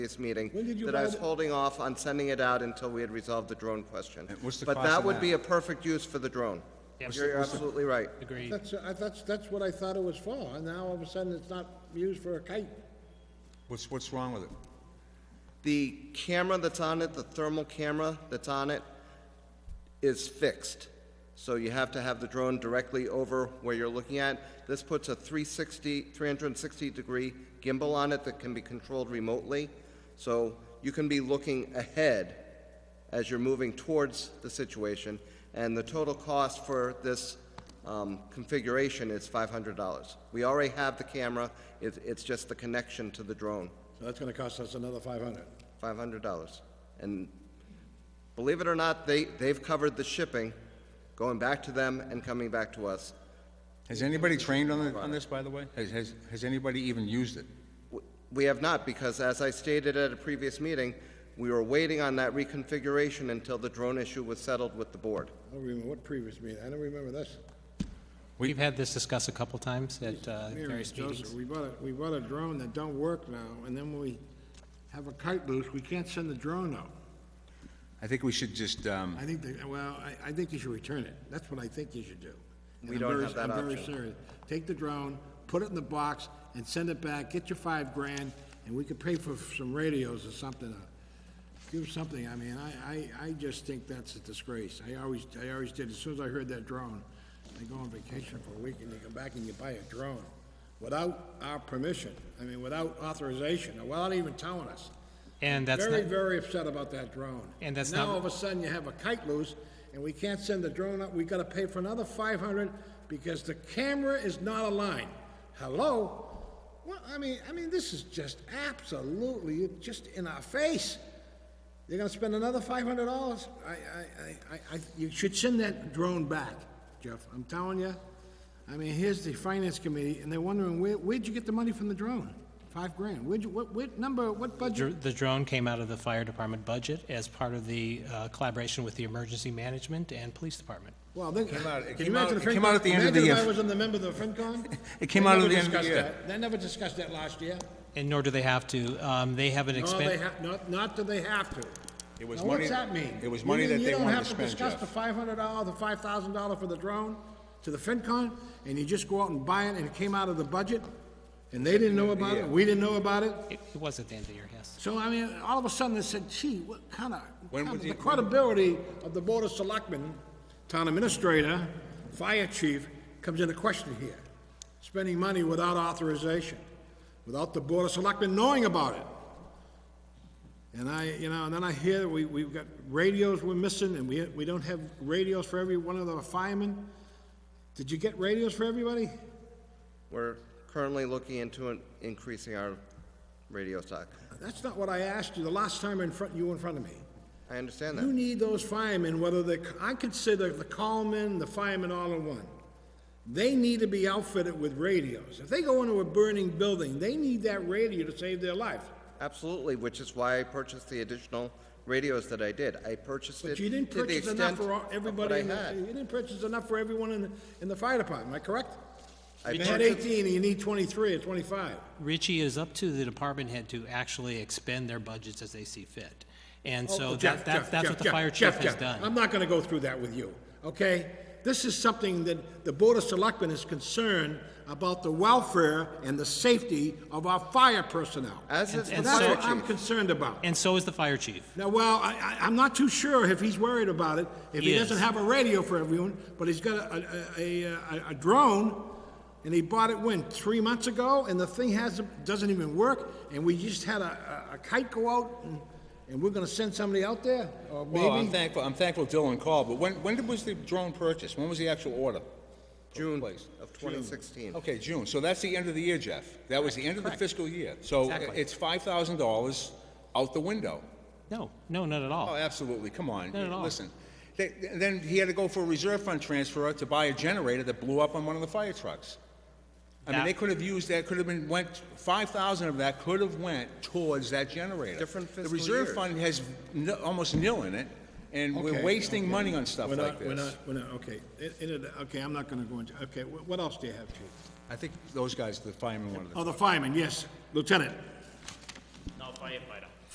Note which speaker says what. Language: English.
Speaker 1: previous meeting.
Speaker 2: When did you
Speaker 1: That I
Speaker 2: buy
Speaker 1: was
Speaker 2: the-
Speaker 1: holding off on sending it out until we had resolved the drone question.
Speaker 3: And what's the
Speaker 1: But
Speaker 3: cost
Speaker 1: that
Speaker 3: of
Speaker 1: would
Speaker 3: that?
Speaker 1: be a perfect use for the drone.
Speaker 4: Yeah,
Speaker 1: You're you're absolutely right.
Speaker 4: Agreed.
Speaker 2: That's, I- that's, that's what I thought it was for, and now all of a sudden it's not used for a kite.
Speaker 3: What's, what's wrong with it?
Speaker 1: The camera that's on it, the thermal camera that's on it, is fixed. So you have to have the drone directly over where you're looking at. This puts a 360, 360-degree gimbal on it that can be controlled remotely. So you can be looking ahead as you're moving towards the situation. And the total cost for this um, configuration is $500. We already have the camera, It- it's just the connection to the drone.
Speaker 2: So that's gonna cost us another five hundred.
Speaker 1: Five hundred dollars. And believe it or not, they, they've covered the shipping, going back to them and coming back to us.
Speaker 3: Has anybody trained on, the- on this, by the way? Has, has, has anybody even used it?
Speaker 1: W- We have not, because as I stated at a previous meeting, we were waiting on that reconfiguration until the drone issue was settled with the board.
Speaker 2: I don't remember what previous meeting, I don't remember this.
Speaker 4: We've had this discussed a couple times at uh,
Speaker 2: Mary,
Speaker 4: various
Speaker 2: Joseph,
Speaker 4: meetings.
Speaker 2: we bought a, we bought a drone that don't work now, and then when we have a kite loose, we can't send the drone out.
Speaker 3: I think we should just, um,
Speaker 2: I think, they- well, I, I think you should return it. That's what I think you should do. And
Speaker 1: We
Speaker 2: I'm
Speaker 1: don't
Speaker 2: very-
Speaker 1: have that
Speaker 2: I'm very
Speaker 1: option.
Speaker 2: serious. Take the drone, put it in the box, and send it back, get your five grand, and we could pay for some radios or something. Give something, I mean, I, I, I just think that's a disgrace. I always, I always did, as soon as I heard that drone, they go on vacation for a week and they come back and you buy a drone without our permission, I mean, without authorization, or without even telling us.
Speaker 4: And that's
Speaker 2: Very,
Speaker 4: not,
Speaker 2: very upset about that drone.
Speaker 4: And that's
Speaker 2: Now,
Speaker 4: not-
Speaker 2: all of a sudden, you have a kite loose, and we can't send the drone up, we gotta pay for another five hundred because the camera is not aligned. Hello? Well, I mean, I mean, this is just absolutely just in our face. You're gonna spend another five hundred dollars? I, I, I, I, I, you should send that drone back, Jeff, I'm telling you. I mean, here's the finance committee, and they're wondering, where, where'd you get the money from the drone? Five grand, where'd you, what, what number, what budget?
Speaker 4: dr- the drone came out of the fire department budget as part of the uh, collaboration with the emergency management and police department.
Speaker 2: Well, then,
Speaker 3: came out- it
Speaker 2: can you
Speaker 3: came out-
Speaker 2: imagine
Speaker 3: it came out at the end of the
Speaker 2: Imagine if
Speaker 3: year.
Speaker 2: I was on the member of the FinCon?
Speaker 3: It came
Speaker 2: They
Speaker 3: out at
Speaker 2: never
Speaker 3: the end of the
Speaker 2: discussed
Speaker 3: year.
Speaker 2: that. They never discussed that last year.
Speaker 4: And nor do they have to. Um, They have an
Speaker 2: No, they
Speaker 4: expense,
Speaker 2: have, not, not that they have to.
Speaker 3: It was
Speaker 2: Now, what's
Speaker 3: money-
Speaker 2: that mean?
Speaker 3: it was
Speaker 2: You
Speaker 3: money
Speaker 2: mean
Speaker 3: that they wanted to
Speaker 2: You don't
Speaker 3: spend,
Speaker 2: have to discuss
Speaker 3: Jeff.
Speaker 2: the five hundred dollar, the five thousand dollar for the drone to the FinCon, and you just go out and buy it, and it came out of the budget? And they didn't know about it, we didn't know about it?
Speaker 4: it it was at the end of the year, yes.
Speaker 2: So, I mean, all of a sudden, they said, gee, what kind of,
Speaker 3: When was
Speaker 2: the
Speaker 3: it-
Speaker 2: credibility of the Board of Selectmen, Town Administrator, Fire Chief, comes into question here. Spending money without authorization, without the Board of Selectmen knowing about it. And I, you know, and then I hear we, we've got radios we're missing, and we, we don't have radios for every one of the firemen. Did you get radios for everybody?
Speaker 1: We're currently looking into in- increasing our radio stock.
Speaker 2: That's not what I asked you the last time in front, you were in front of me.
Speaker 1: I understand
Speaker 2: You
Speaker 1: that.
Speaker 2: need those firemen, whether they, I consider the callmen, the firemen all in one. They need to be outfitted with radios. If they go into a burning building, they need that radio to save their life.
Speaker 1: Absolutely, which is why I purchased the additional radios that I did. I purchased it
Speaker 2: But
Speaker 1: to
Speaker 2: you
Speaker 1: the
Speaker 2: didn't purchase enough
Speaker 1: extent
Speaker 2: for all-
Speaker 1: of what
Speaker 2: everybody,
Speaker 1: I
Speaker 2: in the-
Speaker 1: had.
Speaker 2: you didn't purchase enough for everyone in, the- in the fire department, am I correct?
Speaker 1: I
Speaker 2: You had
Speaker 1: purchased-
Speaker 2: eighteen, and you need twenty-three or twenty-five.
Speaker 4: Richie, it is up to the department head to actually expend their budgets as they see fit. And
Speaker 2: Oh,
Speaker 4: so
Speaker 2: Jeff,
Speaker 4: that, that-
Speaker 2: Jeff,
Speaker 4: that's
Speaker 2: Jeff,
Speaker 4: what the
Speaker 2: Jeff,
Speaker 4: fire
Speaker 2: Jeff,
Speaker 4: chief has
Speaker 2: Jeff,
Speaker 4: done.
Speaker 2: I'm not gonna go through that with you, okay? This is something that the Board of Selectmen is concerned about the welfare and the safety of our fire personnel.
Speaker 1: As is the
Speaker 4: and
Speaker 2: That's
Speaker 4: so-
Speaker 1: fire
Speaker 2: what
Speaker 1: chief.
Speaker 2: I'm concerned about.
Speaker 4: And so is the fire chief.
Speaker 2: Now, well, I, I, I'm not too sure if he's worried about it, if he
Speaker 4: He
Speaker 2: doesn't
Speaker 4: is.
Speaker 2: have a radio for everyone, but he's got a, a, a, a, a drone, and he bought it, when, three months ago, and the thing hasn't, doesn't even work, and we just had a, a- a kite go out, and, and we're gonna send somebody out there, or maybe?
Speaker 3: well, I'm thankful, I'm thankful Dylan called, but when, when did- was the drone purchased? When was the actual order?
Speaker 1: June
Speaker 3: Place.
Speaker 1: of 2016.
Speaker 3: Okay, June, so that's the end of the year, Jeff. That was the end of the fiscal year. So
Speaker 4: Exactly.
Speaker 3: it's five thousand dollars out the window.
Speaker 4: No, no, not at
Speaker 3: Oh,
Speaker 4: all.
Speaker 3: absolutely, come on.
Speaker 4: Not at all.
Speaker 3: Listen, They- then he had to go for a reserve fund transfer to buy a generator that blew up on one of the fire trucks. I mean,
Speaker 4: That-
Speaker 3: they could have used that, could have been, went, five thousand of that could have went towards that generator.
Speaker 1: Different fiscal
Speaker 3: The reserve
Speaker 1: years.
Speaker 3: fund has n- almost nil in it, and we're
Speaker 2: Okay,
Speaker 3: wasting
Speaker 2: okay.
Speaker 3: money on stuff
Speaker 2: We're
Speaker 3: like
Speaker 2: not- We're
Speaker 3: this.
Speaker 2: not, we're not, okay, It- it- okay, I'm not gonna go into, okay, wh- what else do you have, Chief?
Speaker 3: I think those guys, the firemen wanted to.
Speaker 2: Oh, the fireman, yes, Lieutenant.
Speaker 5: No, firefighter.